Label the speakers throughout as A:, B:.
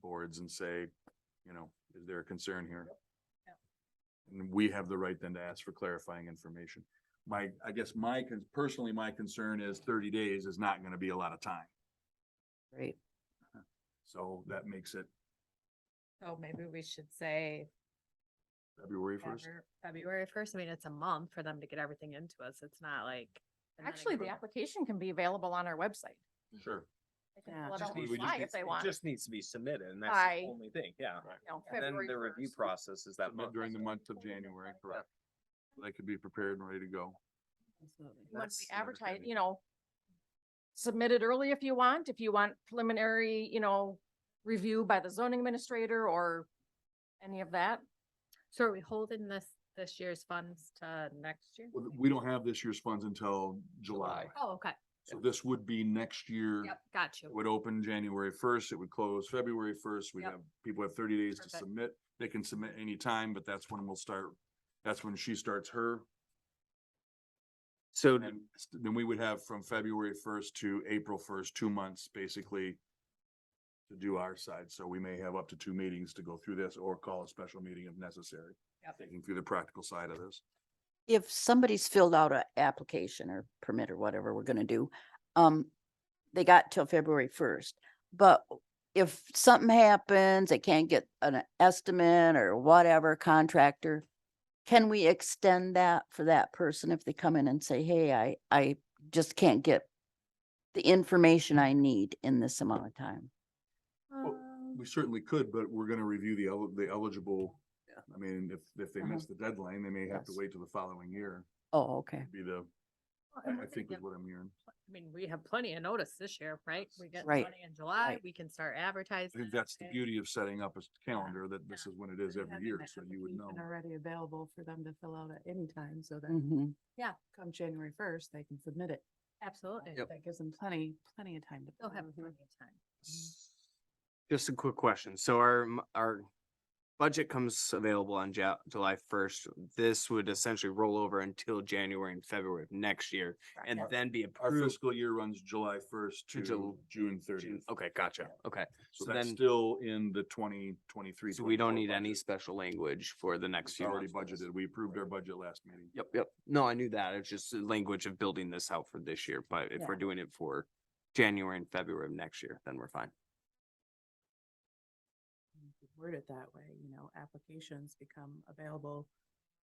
A: boards and say, you know, is there a concern here? And we have the right then to ask for clarifying information. My, I guess my, con- personally, my concern is thirty days is not gonna be a lot of time.
B: Right.
A: So that makes it
C: So maybe we should say
A: February first.
C: February-
B: February first, I mean, it's a month for them to get everything into us. It's not like. and then it
C: Actually, the
B: goes-
C: application can be available on our website.
A: Sure.
C: They can
B: Yeah.
C: fill it
B: Just
C: out
B: need-
C: on
B: we
C: the
B: just
C: fly
B: need-
C: if they
D: it
C: want.
D: Just needs to be submitted and that's
C: By-
D: the only thing, yeah.
C: you know,
D: And then
C: February
D: the review
C: 1st.
D: process is that month.
A: During the month of January, correct. They could be prepared and ready to go.
B: Absolutely.
C: When
D: That's
C: we
A: another
C: advertise,
A: thing.
C: you know, submit it early if you want, if you want preliminary, you know, review by the zoning administrator or any of that.
B: So are we holding this, this year's funds to next year?
A: Well, We don't have this year's funds until July.
B: Oh, okay.
A: So this would be next year.
B: Yep, got
A: It
B: you.
A: would open January first, it would close February first, we
B: Yep.
A: have, people have thirty days to
B: Perfect.
A: submit, they can submit any time, but that's when we'll start. That's when she starts her,
D: So
A: and then we would have from February first to April first, two months, basically. To do our side, so we may have up to two meetings to go through this or call a special meeting if necessary,
B: Yep.
A: thinking through the practical side of this.
E: if somebody's filled out a application or permit or whatever we're gonna do, um, they got till February first. But if something happens, they can't get an estimate or whatever contractor, can we extend that for that person if they come in and say, hey, I, I just can't get the information I need in this amount of time?
B: Um,
A: We certainly could, but we're gonna review the el- the eligible, I mean, if, if they
E: Uh-huh.
A: miss the deadline, they may have to
E: Yes.
A: wait till the following year,
E: Oh, okay,
A: be the
B: Well,
A: I
B: and
A: I
B: we're
A: think
B: gonna
A: is
B: get-
A: what I'm hearing.
B: I mean, we have plenty of notice this year, right? We get
E: Right,
B: money in July,
E: right.
B: we can start
A: I
B: advertising.
A: think that's the
B: and-
A: beauty of setting up a calendar, that this is when it is every year, so you would know.
F: Already available for them to fill out at any time, so
C: Mm.
F: that
E: hmm
F: come January first, they can submit it.
B: Absolutely.
F: That gives them plenty, plenty of time to.
B: They'll
F: fill
B: have
C: Mm-hmm.
F: out.
B: plenty of time.
D: Just a quick question. So our, m- our budget comes available on Ja- July first. This would essentially roll over until January and February of next year and
A: Our-
D: then be
A: Our
D: approved.
A: fiscal year runs July first
D: To
A: to
D: Jul-
A: June
D: June-
A: thirtieth.
D: Okay, gotcha. Okay.
A: So
D: So
A: that's
D: then-
A: still in the twenty twenty-three.
D: So we don't need any special language for the next
A: It's
D: few
A: already
D: months. for this.
A: budgeted. We approved our budget last meeting.
D: Yep, yep. No, I knew that. It's just the language of building this out for this year, but if we're doing it for January and February of next year, then we're fine.
F: You could Word it that way, you know, applications become available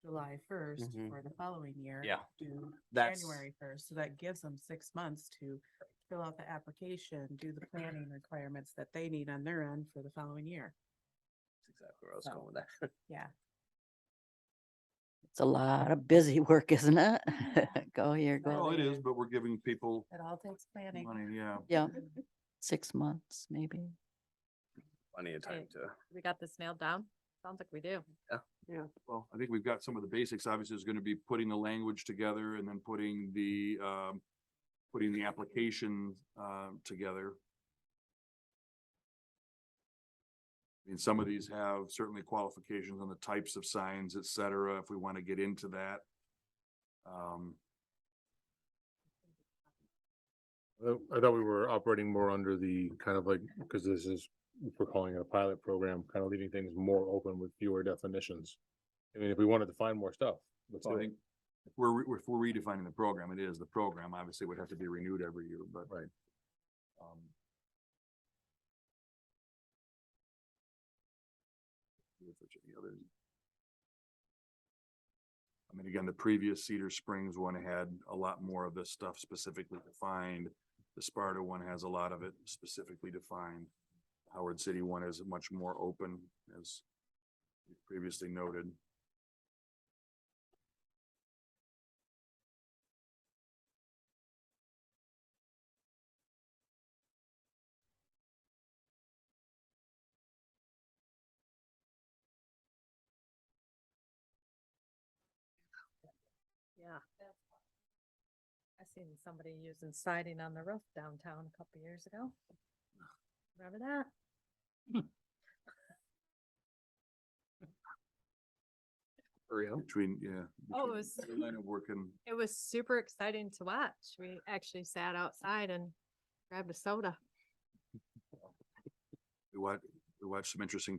F: July first
D: Mhm.
F: for the following year.
D: Yeah.
F: Due
D: That's-
F: January first, so that gives them six months to fill out the application, do the planning requirements that they need on their end for the following year.
D: Exactly where I was
F: going
D: with that.
F: Yeah.
E: It's a lot of busy work, isn't it? Go here,
F: Well,
E: go
A: Well,
E: there,
A: it is, but we're giving people
F: It all takes planning.
A: money, yeah.
E: yeah, six months maybe.
D: Plenty of
B: time
D: time to.
B: We got this nailed down? Sounds like we do.
A: Yeah, well, I think we've got some of the basics. Obviously, is gonna be putting the language together and then putting the, um, putting the application, um, together. And some of these have certainly qualifications on the types of signs, et cetera, if we wanna get into that. Um,
G: Uh, I thought we were operating more under the kind of like, because this is, if we're calling it a pilot program, kind of leaving things more open with fewer definitions. I mean, if we wanted to find more stuff, let's
A: so I
G: do it.
A: think if we're, re- if we're redefining the program, it is, the program obviously would have to be renewed every year, but.
G: Right.
A: um, see if there's any others. I mean, again, the previous Cedar Springs one had a lot more of this stuff specifically defined. The Sparta one has a lot of it specifically defined. Howard City one is much more open, as we previously noted.
B: Yeah. I seen somebody using siding on the roof downtown a couple years ago. Remember that?
D: Real?
A: Between, yeah.
B: Oh,
A: between
B: it was-
A: your Line of work and
B: It was super exciting to watch. We actually sat outside and grabbed a soda.
A: we wa- We watched some interesting